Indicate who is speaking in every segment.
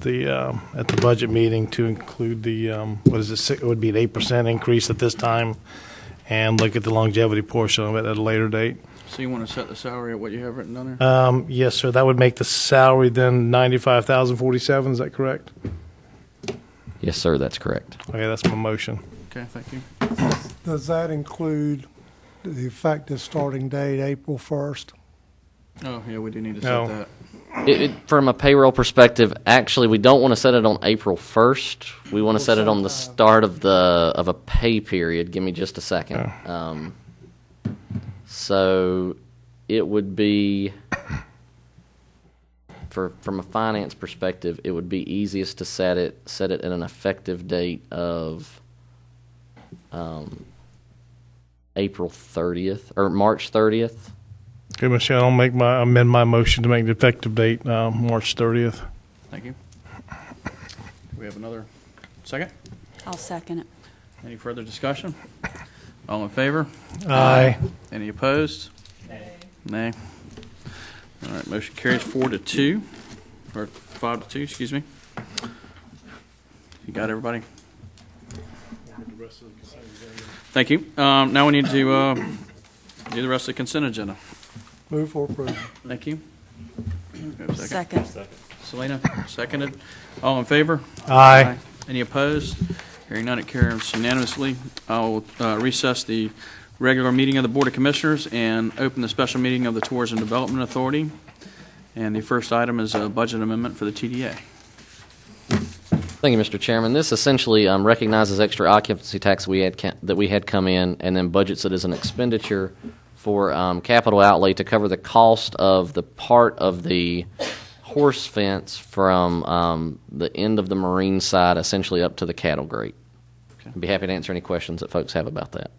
Speaker 1: the, um, at the budget meeting to include the, um, what is it, si- it would be an eight percent increase at this time, and look at the longevity portion of it at a later date.
Speaker 2: So you want to set the salary at what you have written down there?
Speaker 1: Um, Yes, sir, that would make the salary then ninety-five thousand forty-seven, is that correct?
Speaker 3: Yes, sir, that's correct.
Speaker 1: Okay, that's my motion.
Speaker 2: Okay, thank you.
Speaker 4: Does that include the effective starting date, April 1st?
Speaker 2: Oh, yeah, we do need to
Speaker 1: No.
Speaker 2: set that.
Speaker 3: It, it, from a payroll perspective, actually, we don't want to set it on April 1st. We want to set it on the start of the of a pay period. Give me just a second. Um, so it would be for from a finance perspective, it would be easiest to set it set it at an effective date of um, April 30th or March 30th.
Speaker 1: Okay, Michelle, I'll make my, amend my motion to make the effective date, um, March thirtieth.
Speaker 2: Thank you. Do we have another second?
Speaker 5: I'll second it.
Speaker 2: Any further discussion? All in favor?
Speaker 1: Aye.
Speaker 2: Any opposed? Nay. All right, motion carries four to two, or five to two, excuse me. You got everybody? Thank you. Um, Now we need to uh, do the rest of the consent agenda.
Speaker 4: Move for approval.
Speaker 2: Thank you. Go Second.
Speaker 5: Second.
Speaker 2: Selena, seconded. All in favor?
Speaker 1: Aye.
Speaker 2: Any opposed? Hearing none, it carries unanimously. I'll uh, recess the regular meeting of the Board of Commissioners and open the special meeting of the Tourism Development Authority. And the first item is a budget amendment for the TDA.
Speaker 3: Thank you, Mr. Chairman. This essentially um, recognizes extra occupancy tax we had ca- that we had come in, and then budgets it as an expenditure for um, capital outlay to cover the cost of the part of the horse fence from um, the end of the marine side, essentially up to the cattle grate.
Speaker 2: Okay.
Speaker 3: I'd be happy to answer any questions that folks have about that.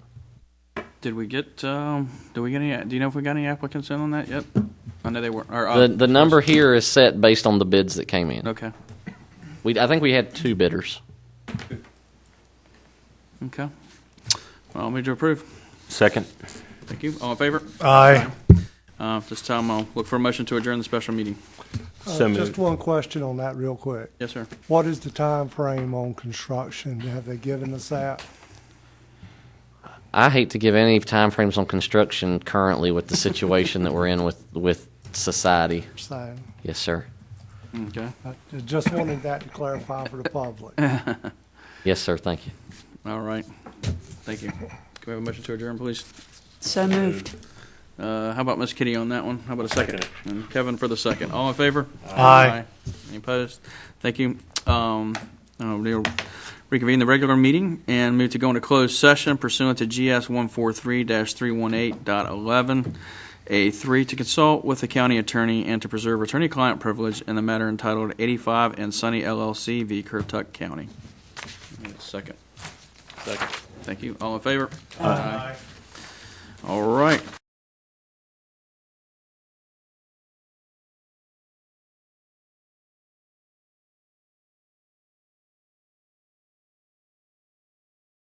Speaker 2: Did we get, um, do we get any, do you know if we got any applicants in on that yet? I know they were, or, uh,
Speaker 3: The, the number here is set based on the bids that came in.
Speaker 2: okay,
Speaker 3: We, I think we had two bidders.
Speaker 2: okay. Well, I'll move to approve.
Speaker 6: Second.
Speaker 2: Thank you. All in favor?
Speaker 1: Aye.
Speaker 2: Uh, This time, I'll look for a motion to adjourn the special meeting.
Speaker 4: Uh,
Speaker 6: So
Speaker 4: Just
Speaker 6: moved.
Speaker 4: one question on that real quick.
Speaker 2: Yes, sir.
Speaker 4: What is the time frame on construction? Have they given us that?
Speaker 3: I hate to give any timeframes on construction currently with the situation that we're in with, with society.
Speaker 4: So
Speaker 3: Yes, sir.
Speaker 2: Okay.
Speaker 4: I just wanted that to clarify for the public.
Speaker 3: Yes, sir. Thank you.
Speaker 2: All right. Thank you. Can we have a motion to adjourn, please?
Speaker 5: So moved.
Speaker 2: Uh, How about Miss Kitty on that one? How about a second? And Kevin for the second. All in favor?
Speaker 1: Aye.
Speaker 2: Any opposed? Thank you. Um, uh, We'll reconvene the regular meeting and move to go into closed session pursuant to GS 143-318.11A3 to consult with the county attorney and to preserve attorney-client privilege in the matter entitled 85 and Sunny LLC v. Currituck County. Second. Second. Thank you. All in favor? Aye. All right.